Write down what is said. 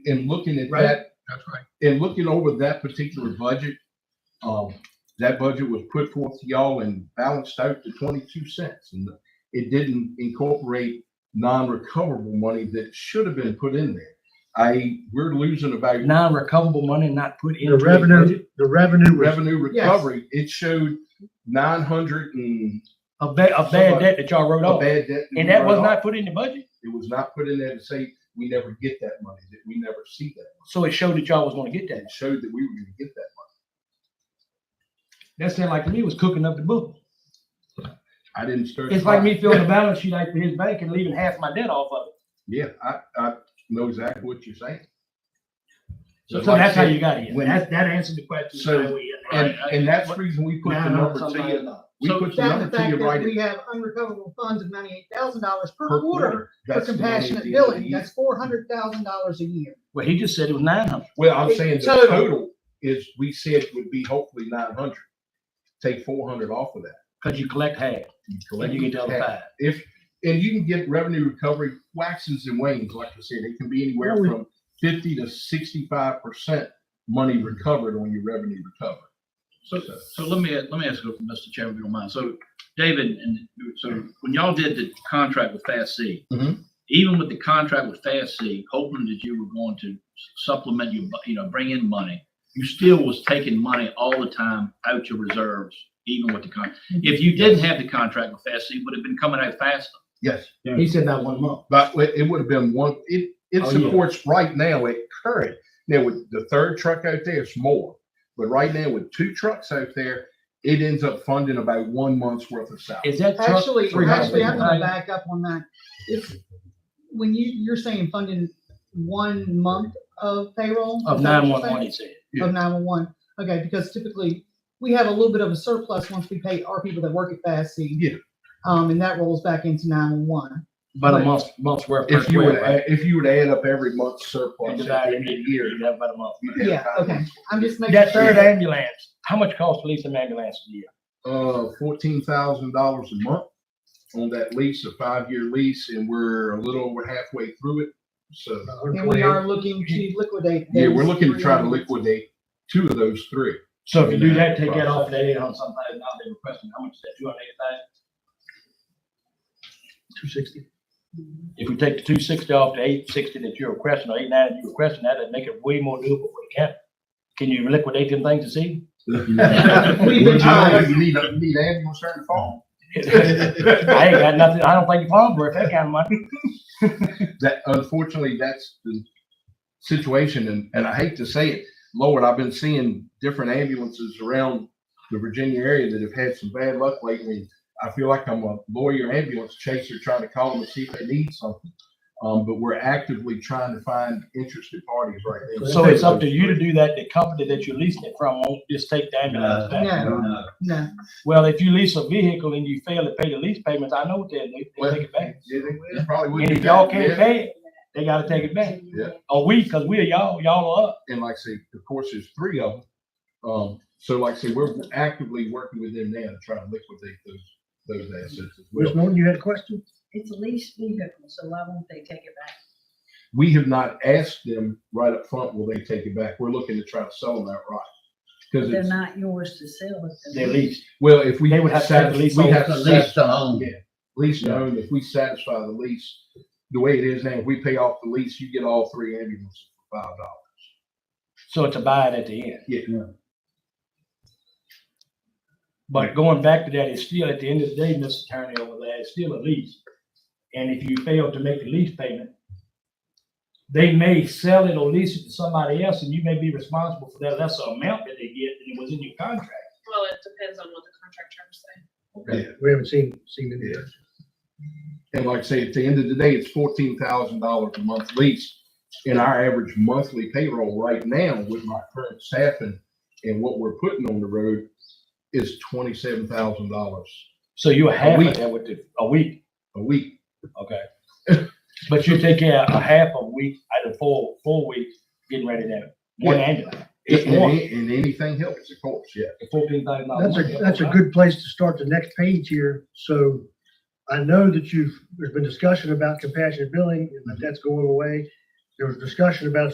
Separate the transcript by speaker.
Speaker 1: in looking at
Speaker 2: Right.
Speaker 1: that,
Speaker 2: That's right.
Speaker 1: in looking over that particular budget, um, that budget was put forth to y'all and balanced out to twenty-two cents. And it didn't incorporate non-recoverable money that should have been put in there. I, we're losing about
Speaker 3: non-recoverable money not put
Speaker 4: The
Speaker 3: into the budget
Speaker 4: revenue, the revenue was
Speaker 1: revenue recovery. It showed nine hundred and
Speaker 3: of ba- of bad debt that y'all wrote
Speaker 1: a
Speaker 3: off.
Speaker 1: bad debt.
Speaker 3: And that was
Speaker 1: wrote off.
Speaker 3: not put in the budget.
Speaker 1: It was not put in there to say, we never get that money, that we never see that.
Speaker 3: So it showed that y'all was gonna get that.
Speaker 1: It showed that we were gonna get that.
Speaker 3: That sounded like to me it was cooking up the book.
Speaker 1: I didn't start.
Speaker 3: It's like me filling a balance sheet out for his bank and leaving half my debt off of it.
Speaker 1: Yeah, I, I know exactly what you're saying.
Speaker 3: So,
Speaker 1: Just
Speaker 3: so
Speaker 1: like I
Speaker 3: that's how
Speaker 1: said,
Speaker 3: you got here.
Speaker 1: when-
Speaker 3: That, that answered the question.
Speaker 1: So,
Speaker 3: how we-
Speaker 1: And, and that's the reason we put the
Speaker 4: Now,
Speaker 1: number to you, we
Speaker 2: So
Speaker 1: put the
Speaker 5: That's
Speaker 1: number
Speaker 5: the
Speaker 1: to
Speaker 5: fact
Speaker 1: you right
Speaker 5: that
Speaker 1: at-
Speaker 5: we have unrecoverable funds of ninety-eight thousand dollars per
Speaker 1: per
Speaker 5: quarter
Speaker 1: quarter.
Speaker 5: for
Speaker 1: That's the money at the
Speaker 5: compassionate
Speaker 1: end of the
Speaker 5: billing.
Speaker 1: year.
Speaker 5: That's four hundred thousand dollars a year.
Speaker 3: Well, he just said it was nine hundred.
Speaker 1: Well, I'm saying the
Speaker 5: Total.
Speaker 1: total is, we said would be hopefully nine hundred. Take four hundred off of that.
Speaker 3: Cause you collect half,
Speaker 1: You
Speaker 3: and
Speaker 1: collect
Speaker 3: you get the other
Speaker 1: half.
Speaker 3: five.
Speaker 1: If, and you can get revenue recovery waxes and wanes, like I said, it can be anywhere
Speaker 4: Well, we-
Speaker 1: from fifty to sixty-five percent money recovered on your revenue recovery.
Speaker 2: So, so let me, let me ask you, Mr. Chairman, if you don't mind. So David, and so when y'all did the contract with Fast C,
Speaker 3: Mm-hmm.
Speaker 1: Mhm.
Speaker 2: even with the contract with Fast C, hoping that you were going to supplement your, bu- you know, bring in money, you still was taking money all the time out your reserves, even with the con,
Speaker 3: Mm-hmm.
Speaker 2: if you didn't have the contract with Fast C, it would have been coming out faster.
Speaker 1: Yes,
Speaker 3: He said that one month.
Speaker 1: but it it would have been one, it, it
Speaker 3: Oh, yeah.
Speaker 1: supports right now at current. Now with the third truck out there, it's more. But right now with two trucks out there, it ends up funding about one month's worth of salary.
Speaker 3: Is that truck?
Speaker 5: Actually,
Speaker 3: three hundred
Speaker 5: actually, I'm gonna
Speaker 3: thousand?
Speaker 5: back up on that. It's, when you, you're saying funding one month of payroll?
Speaker 3: Of
Speaker 5: is
Speaker 3: nine
Speaker 5: that what you're
Speaker 3: one one,
Speaker 5: saying?
Speaker 3: he said.
Speaker 1: Yeah.
Speaker 5: Of nine-one-one, okay, because typically, we have a little bit of a surplus once we pay our people that work at Fast C.
Speaker 1: Yeah.
Speaker 5: Um, and that rolls back into nine-one-one.
Speaker 3: About a month, month's worth. per
Speaker 1: If you
Speaker 3: square,
Speaker 1: would,
Speaker 3: right?
Speaker 1: add- if you would add up every month's
Speaker 3: And
Speaker 1: surplus at
Speaker 3: divide
Speaker 1: the
Speaker 3: it
Speaker 1: end of the
Speaker 3: into
Speaker 1: year.
Speaker 3: you'd have about a month.
Speaker 1: you'd have
Speaker 5: Yeah,
Speaker 1: about-
Speaker 5: okay, I'm just making.
Speaker 3: That
Speaker 5: sure.
Speaker 3: third ambulance, how much cost to lease an ambulance a year?
Speaker 1: uh, fourteen thousand dollars a month on that lease, a five-year lease, and we're a little over halfway through it. So,
Speaker 5: And we are looking to liquidate.
Speaker 1: yeah, we're
Speaker 5: those
Speaker 1: looking to try to
Speaker 5: three.
Speaker 1: liquidate two of those three.
Speaker 3: So if you do that, take that off that eight hundred something, now they were questioning, how much is that, two hundred eighty thousand? Two sixty. If we take the two sixty off the eight sixty that you're requesting, or eight ninety you requesting, that'd make it way more doable for the county. Can you liquidate them things this evening?
Speaker 5: We've been trying.
Speaker 1: You need, you need ambulance starting to fall.
Speaker 3: I ain't got nothing, I don't think you're wrong, for that kind of money.
Speaker 1: That, unfortunately, that's the situation, and, and I hate to say it, Lord, I've been seeing different ambulances around the Virginia area that have had some bad luck lately. I feel like I'm a lawyer ambulance chaser trying to call them and see if they need something. Um, but we're actively trying to find interested parties right now.
Speaker 3: So it's up to you to do that, the company that you're leasing it from won't just take the ambulance back.
Speaker 5: No,
Speaker 2: Uh,
Speaker 5: no.
Speaker 3: Well, if you lease a vehicle and you fail to pay the lease payments, I know what they'll do, they'll
Speaker 1: Well,
Speaker 3: take it back.
Speaker 1: Yeah, they would- probably would.
Speaker 3: And
Speaker 1: do
Speaker 3: if y'all
Speaker 1: that,
Speaker 3: can't
Speaker 1: yeah.
Speaker 3: pay it, they gotta take it back.
Speaker 1: Yeah.
Speaker 3: Or we, cause we're y'all, y'all are up.
Speaker 1: And like I say, of course, there's three of them. Um, so like I say, we're actively working with them now to try to liquidate those, those assets as well.
Speaker 4: Ms. Norton, you had a question?
Speaker 6: It's a leased vehicle, so why won't they take it back?
Speaker 1: we have not asked them right up front, will they take it back? We're looking to try to sell them outright. Because
Speaker 6: They're
Speaker 1: it's,
Speaker 6: not yours to sell. if
Speaker 3: They lease.
Speaker 1: well, if we.
Speaker 3: They would have to have the lease
Speaker 1: We
Speaker 3: on-
Speaker 1: have to satisfy
Speaker 2: to own.
Speaker 1: lease and own. If we satisfy the lease, the way it is now, if we pay off the lease, you get all three ambulances for five dollars.
Speaker 3: So it's a buy it at the end.
Speaker 1: Yeah.
Speaker 3: But going back to that, it's still, at the end of the day, Mr. Attorney over there, it's still a lease. And if you fail to make the lease payment, they may sell it or lease it to somebody else and you may be responsible for that lesser amount that they get than it was in your contract.
Speaker 7: Well, it depends on what the contract terms say.
Speaker 4: We haven't seen, seen it yet.
Speaker 1: And like I say, at the end of the day, it's fourteen thousand dollars a month lease. And our average monthly payroll right now with my current staffing and what we're putting on the road is twenty-seven thousand dollars
Speaker 3: So you're half
Speaker 1: week.
Speaker 3: of that with the, a week,
Speaker 1: a week.
Speaker 3: okay? But you take care of a half a week, out of four, four weeks, getting ready to, one
Speaker 1: Yeah.
Speaker 3: ambulance, It's
Speaker 1: And,
Speaker 3: one.
Speaker 1: and anything helps, of course, yeah.
Speaker 3: fourteen thousand dollars.
Speaker 4: That's a, that's a good place to start the next page here. So I know that you've, there's been discussion about compassionate billing, but that's going away. There was discussion about